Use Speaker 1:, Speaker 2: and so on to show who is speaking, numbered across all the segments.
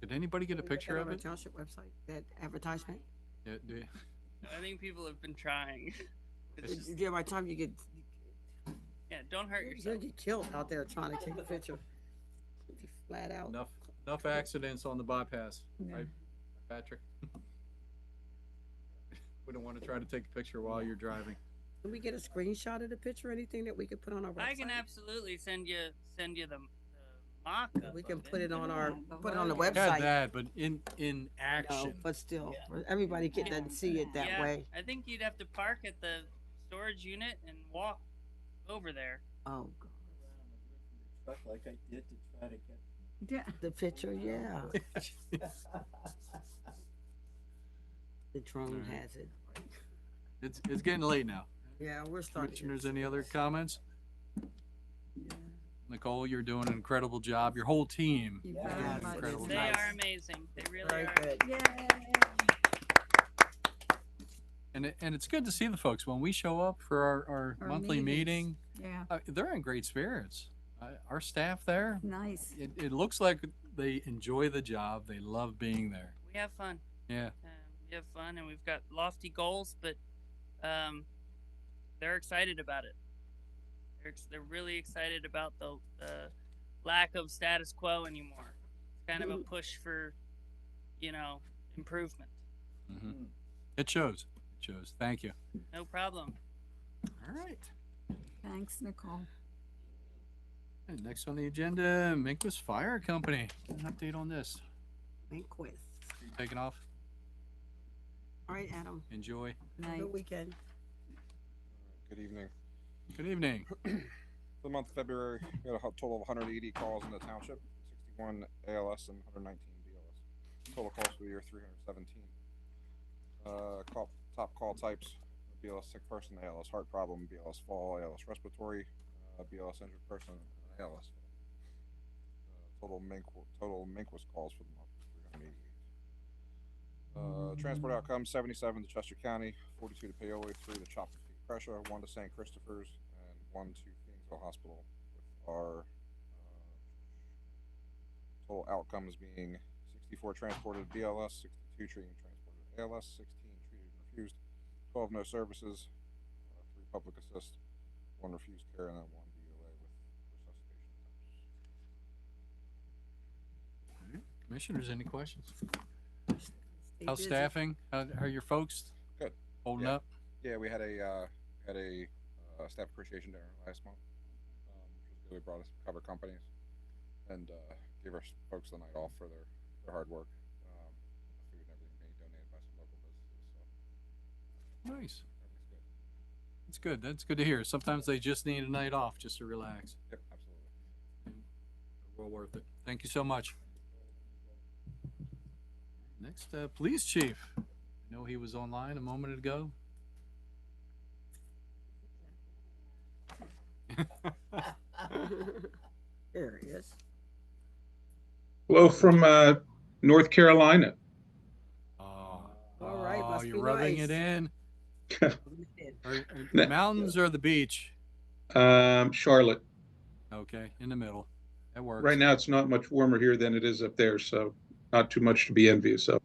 Speaker 1: Did anybody get a
Speaker 2: Can we get
Speaker 1: picture
Speaker 2: that
Speaker 1: of
Speaker 2: on our
Speaker 1: it?
Speaker 2: Township website, that advertisement?
Speaker 1: Yeah, do-
Speaker 3: I think people have been trying. It's
Speaker 1: It's-
Speaker 3: just,
Speaker 2: Yeah, by the time you get,
Speaker 3: yeah, don't hurt
Speaker 2: you're gonna
Speaker 3: yourself.
Speaker 2: get killed out there trying to take a picture. Flat out.
Speaker 1: Enough, enough accidents on the bypass, right, Patrick? We don't want to try to take a picture while you're driving.
Speaker 2: Can we get a screenshot of the picture, anything that we could put on our website?
Speaker 3: I can absolutely send you send you the, the mock
Speaker 2: We can put it on our, put it on the
Speaker 1: Had
Speaker 2: website,
Speaker 1: that, but in, in
Speaker 2: no,
Speaker 1: action.
Speaker 2: but still, everybody can, doesn't see it that
Speaker 3: Yeah.
Speaker 2: way.
Speaker 3: I think you'd have to park at the storage unit and walk over there.
Speaker 2: Oh,
Speaker 4: Truck like I did to try to get.
Speaker 5: Yeah,
Speaker 2: the picture, yeah, the drone
Speaker 1: Alright.
Speaker 2: has it.
Speaker 1: It's, it's getting late now.
Speaker 2: Yeah, we're starting. to-
Speaker 1: Commissioners, any other comments? Nicole, you're doing an incredible job. Your whole team.
Speaker 5: you
Speaker 4: Yeah,
Speaker 5: very
Speaker 2: that's
Speaker 5: much.
Speaker 1: incredible.
Speaker 3: They
Speaker 2: Nice.
Speaker 3: are amazing. They really
Speaker 2: Very
Speaker 3: are.
Speaker 2: good.
Speaker 5: Yay.
Speaker 1: And, it- and it's good to see the folks when we show up for our, our
Speaker 5: Our
Speaker 1: monthly meeting.
Speaker 5: meetings. Yeah,
Speaker 1: uh, They're in great spirits. Uh, Our staff there,
Speaker 5: nice.
Speaker 1: it, it looks like they enjoy the job. They love being there.
Speaker 3: We have fun.
Speaker 1: Yeah.
Speaker 3: Um, we have fun and we've got lofty goals, but um, they're excited about it. They're, ex- they're really excited about the, the lack of status quo anymore. It's kind of a push for, you know, improvement.
Speaker 6: Hmm.
Speaker 1: Mhm. It shows. It shows. Thank you.
Speaker 3: No problem.
Speaker 1: All right.
Speaker 5: Thanks, Nicole.
Speaker 1: And next on the agenda, Minquist Fire Company. An update on this.
Speaker 2: Inquest.
Speaker 1: Taking off.
Speaker 2: All right, Adam,
Speaker 1: Enjoy.
Speaker 5: Night.
Speaker 2: good weekend.
Speaker 6: Good evening.
Speaker 1: Good evening.
Speaker 6: For the month of February, we had a hu- total of 180 calls in the township, 61 ALS and 119 BLS. Total calls for the year 317. Uh, call, top call types: BLS sick person, ALS heart problem, BLS fall, ALS respiratory, uh, BLS injured person, and ALS. Uh, total mink total minquist calls for the month: was 388. Uh, transport outcomes 77 to Chester County, 42 to Paoli, 3 to Chopper Creek Prussia, 1 to St. Christopher's, and 1 to Kingsville Hospital. With our uh, total outcomes being 64 transported BLS, 62 treating transported ALS, 16 treated and refused, 12 no services, uh, 3 public assist, 1 refused care, and then 1 DLA with resuscitation attempts.
Speaker 1: Commissioners, any questions?
Speaker 2: Stay
Speaker 1: How's
Speaker 2: busy.
Speaker 1: staffing? How how are your folks?
Speaker 6: Good.
Speaker 1: Holding
Speaker 6: Yeah.
Speaker 1: up?
Speaker 6: Yeah, we had a uh, had a uh, staff appreciation dinner last month. Um, which was good. We brought us cover companies and uh, gave our s- folks the night off for their, their hard work. Um, the food and everything being donated by some local businesses, so
Speaker 1: Nice.
Speaker 6: everything's good.
Speaker 1: That's good. That's good to hear. Sometimes they just need a night off just to relax.
Speaker 6: Yep, absolutely.
Speaker 1: Well worth it. Thank you so much. Next, uh, Police Chief. I know he was online a moment ago.
Speaker 2: There he is.
Speaker 7: Hello from uh, North Carolina. Ah.
Speaker 1: Oh,
Speaker 2: All right,
Speaker 1: oh,
Speaker 2: must
Speaker 1: you're
Speaker 2: be
Speaker 1: rubbing
Speaker 2: nice.
Speaker 1: it in. Are- are the
Speaker 7: Ne-
Speaker 1: mountains or the beach?
Speaker 7: Um, Charlotte.
Speaker 1: Okay, in the middle. That works.
Speaker 7: Right now, it's not much warmer here than it is up there, so not too much to be envious of.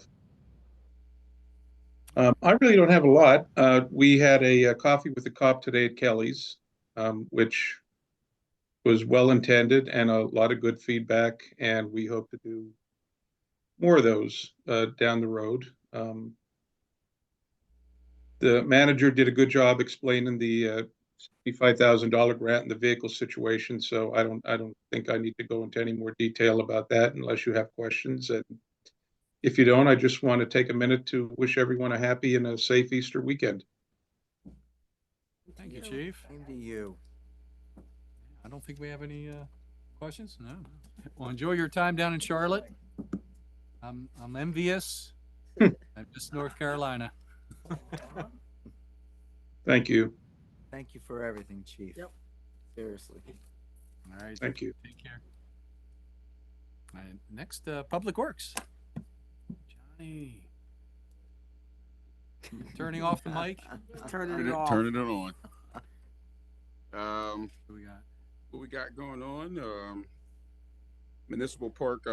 Speaker 7: Um, I really don't have a lot. Uh, we had a, uh coffee with a cop today at Kelly's, um, which was well intended and a lot of good feedback, and we hope to do more of those uh, down the road. Um, the manager did a good job explaining the uh, sixty-five thousand dollar grant in the vehicle situation, so I don't, I don't think I need to go into any more detail about that unless you have questions, and if you don't, I just want to take a minute to wish everyone a happy and a safe Easter weekend.
Speaker 1: Thank you, Chief.
Speaker 4: Into you.
Speaker 1: I don't think we have any uh, questions. No. Well, enjoy your time down in Charlotte. I'm I'm envious. I'm just North Carolina.
Speaker 7: Thank you,
Speaker 4: Thank you for everything, chief.
Speaker 2: Yep.
Speaker 4: Seriously.
Speaker 1: All right.
Speaker 7: thank you.
Speaker 1: Take care. All right. Next, uh, Public Works. Johnny. Turning off the mic.
Speaker 2: Turning
Speaker 8: Turn
Speaker 2: it
Speaker 8: it,
Speaker 2: off.
Speaker 8: turn it on. Um,
Speaker 1: Who we got?
Speaker 8: what we got going on? Um, Municipal Park